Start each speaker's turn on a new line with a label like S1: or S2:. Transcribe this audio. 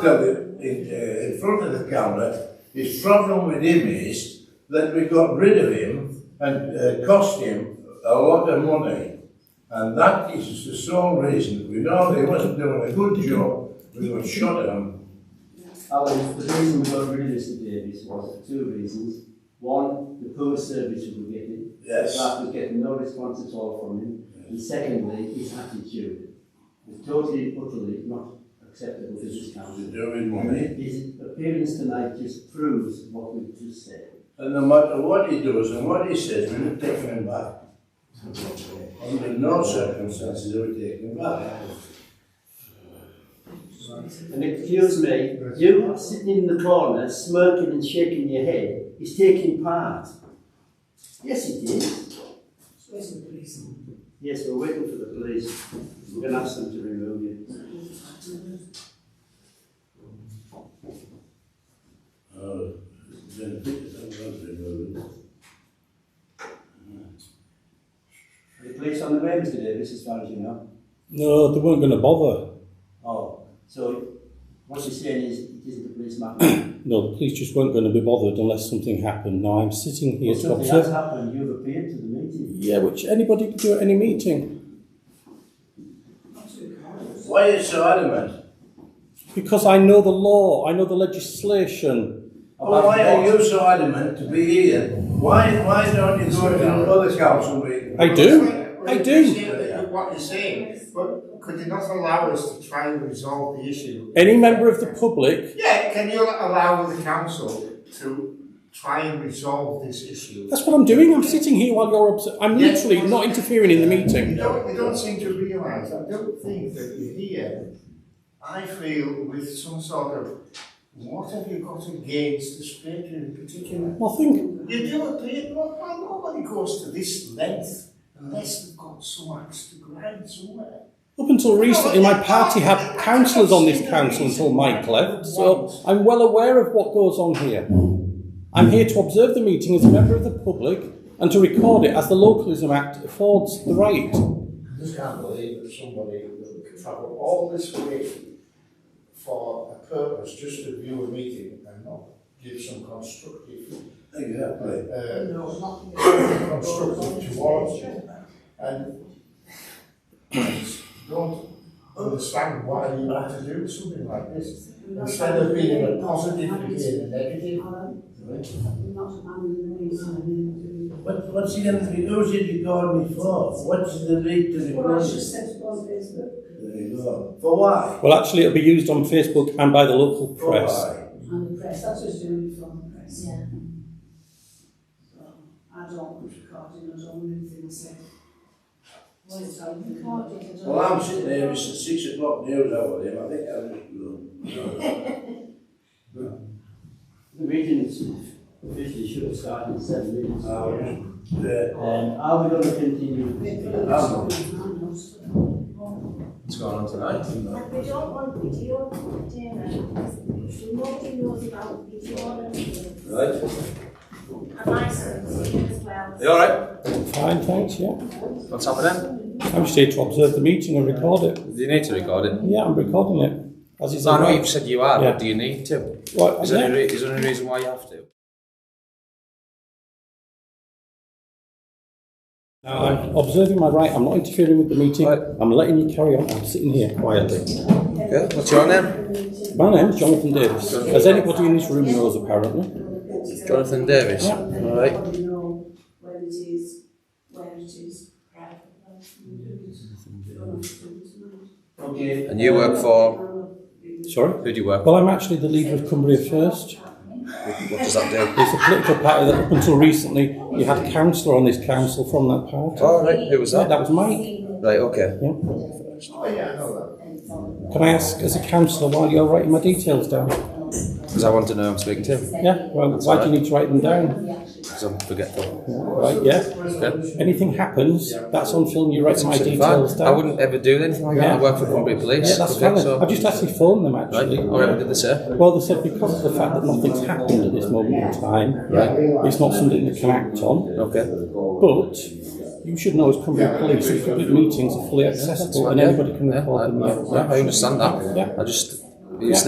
S1: front of it, in, uh, in front of the camera, his problem with him is that we got rid of him and uh, cost him a lot of money. And that is the sole reason. We know they wasn't doing a good job, we got shut at 'em.
S2: Alan, the reason we got rid of Mr Davies was for two reasons. One, the poor service we were getting.
S1: Yes.
S2: That was getting no response at all from him. And secondly, his attitude was totally, utterly not acceptable to this
S1: to
S2: council.
S1: do with money.
S2: His appearance tonight just proves what we've just said.
S1: And no matter what he does and what he says, we're not taking him back. Under no circumstances are we taking him back.
S2: And excuse me, you sitting in the corner smirking and shaking your head is taking part. Yes, it is.
S3: Where's the police?
S2: Yes, we're waiting for the police. We're going to ask them to remove you.
S1: Oh, then pick it up, I'll remove it.
S2: Are the police on the way, Mr Davis, as far as you know?
S4: No, they weren't going to bother.
S2: Oh, so what you're saying is it isn't the police matter.
S4: No, the police just weren't going to be bothered unless something happened. Now I'm sitting here
S2: Well,
S4: to
S2: something has
S4: observe.
S2: happened. You've appeared to the meeting.
S4: Yeah, which anybody could do at any meeting
S1: Why are you so adamant?
S4: because I know the law, I know the legislation.
S3: Oh,
S1: Well, why are you so adamant to be here? Why, why don't you go to another council meeting?
S4: I do, I do.
S5: appreciate What you're saying, but could you not allow us to try and resolve the issue?
S4: Any member of the public.
S5: Yeah, can you allow the council to try and resolve this issue?
S4: That's what I'm doing. I'm sitting here while you're observing. I'm literally not interfering in the
S5: You
S4: meeting.
S5: don't, you don't seem to realise, I don't think that you're here. I feel with some sort of, what have you got against the state in particular?
S4: Nothing.
S5: You do appear, well, why nobody goes to this length unless they've got some axe to grind somewhere.
S4: Up until recently, my party had councillors on this council until Mike left, so I'm well aware of what goes on here. I'm here to observe the meeting as a member of the public and to record it as the Localism Act affords the right.
S5: I just can't believe that somebody would travel all this way for a purpose, just to view a meeting and not give some constructive,
S1: Exactly.
S5: uh, constructive towards you. And I just don't understand why you want to do something like this. Instead of being in a positive, you're being a negative.
S1: What, what's he gonna be, who's he recording me for? What's the need to
S3: Well, I
S1: record
S3: should
S1: it?
S3: send it on Facebook.
S1: There you go. For why?
S4: Well, actually, it'll be used on Facebook and by the local
S1: For
S4: press.
S1: why?
S3: And the press, that's what's doing it from the press. Yeah. So, I don't want recording, I don't want anything I say. Well, it's all recorded, I don't
S1: Well, I'm
S3: want-
S1: sitting here, it's at six o'clock news hour with him, I think I'm.
S2: The meeting is usually should have started in seven minutes.
S3: Oh,
S2: Um,
S1: Um, uh,
S2: are we going to continue?
S1: I'm-
S6: What's going on tonight?
S7: And we don't want video, Dana, because nobody knows about video and everything.
S6: Right?
S7: And my son's here as well.
S6: You all right?
S4: Fine, thanks, yeah.
S6: What's happening?
S4: I'm just here to observe the meeting and record it.
S6: Do you need to record it?
S4: Yeah, I'm recording it. As is
S6: No, I know
S4: allowed.
S6: you've said you are,
S4: Yeah.
S6: but do you need to?
S4: Right,
S6: Is
S4: yeah.
S6: there, any, re- is there any reason why you have to?
S4: Now, I'm observing my right. I'm not interfering with the meeting.
S6: Right.
S4: I'm letting you carry on. I'm sitting here quietly.
S6: Okay. What's your name?
S4: My name's Jonathan Davis. As anybody in this room knows, apparently.
S6: Jonathan Davis.
S4: Yeah.
S6: All right.
S3: Everybody know where it is, where it is.
S2: Okay.
S6: And you work for?
S4: Sorry?
S6: Who do you work
S4: Well, I'm actually the leader of Cumbria First.
S6: for? What does that do?
S4: It's a political party that up until recently you had a councillor on this council from that party.
S6: All right. Who was
S4: Yeah,
S6: that?
S4: that was Mike.
S6: Right. Okay.
S5: Oh, yeah, I know that.
S4: Can I ask, as a councillor, while you're writing my details down?
S6: Because I want to know who I'm speaking to.
S4: Yeah, well, why do you need to write them down?
S6: Because I'm forgetful.
S4: Right, yeah.
S6: Okay.
S4: Anything happens, that's on film, you write my
S6: Absolutely
S4: details
S6: fine. I
S4: down.
S6: wouldn't ever do anything like that. I
S4: Yeah.
S6: work for Cumbria Police.
S4: Yeah, that's
S6: okay,
S4: fine.
S6: so-
S4: I've just actually phoned them
S6: Right.
S4: actually.
S6: All right. What did they say?
S4: Well, they said because of the fact that nothing's happened at this moment in time, it's not something they can act on.
S6: Okay.
S4: But you should know as Cumbria Police, that public meetings are fully accessible and anybody can
S6: Yeah,
S4: record
S6: I,
S4: them.
S6: yeah, I understand that.
S4: Yeah.
S6: I just.
S4: Yeah.